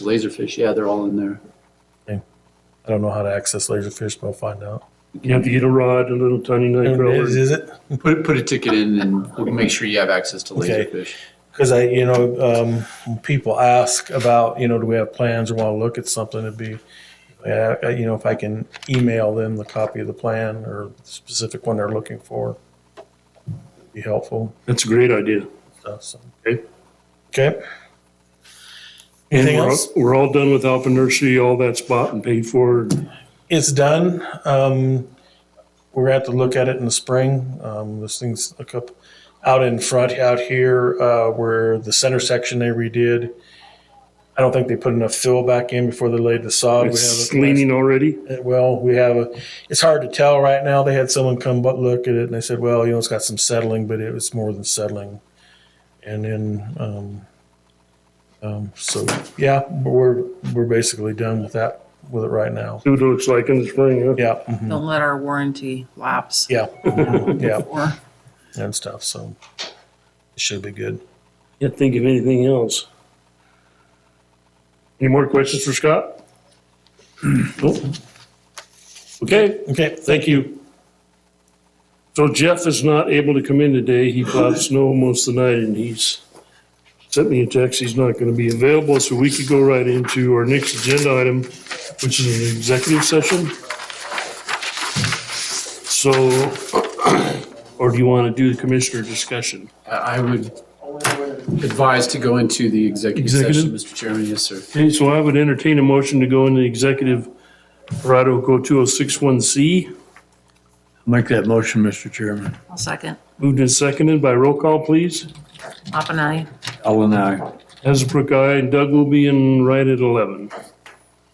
Laserfish, yeah, they're all in there. I don't know how to access laserfish, but I'll find out. You have to get a rod, a little tiny night crawler. Is, is it? Put, put a ticket in and we'll make sure you have access to Okay. Laserfish. Because I, you know, um, people ask about, you know, do we have plans or want to look at something? It'd be, uh, you know, if I can email them the copy of the plan or the specific one they're looking for, it'd be helpful. That's a great idea. So, so. Okay. Okay. And Anything we're, else? we're all done with Alpha Nursery, all that's bought and paid for. It's done. Um, we're gonna have to look at it in the spring. Um, this thing's a couple out in front out here uh, where the center section they redid. I don't think they put enough fill back in before they laid the sod. It's we have a- leaning already. uh, Well, we have a, it's hard to tell right now. They had someone come but look at it and they said, well, you know, it's got some settling, but it was more than settling. And then, um, um, so yeah, we're, we're basically done with that, with it right now. See what it looks like in the spring, huh? Yeah. mhm, Don't let our warranty lapse. Yeah. mhm, Yeah. Or And stuff. So it should be good. Can't think of anything else. Any more questions for Scott? Nope. Okay, Okay. thank you. So Jeff is not able to come in today. He plowed snow most of the night and he's sent me a text. He's not going to be available, so we could go right into our next agenda item, which is an executive session. So, or do you want to do the commissioner discussion? I I would advise to go into the executive session, Executive? Mr. Chairman, yes, sir. Okay, so I would entertain a motion to go into executive Parado Code 2061C. Make that motion, Mr. Chairman. I'll second. Moved and seconded by roll call, please. Pop and I. Ellen, aye. Hasbrook, aye. Doug will be in right at 11.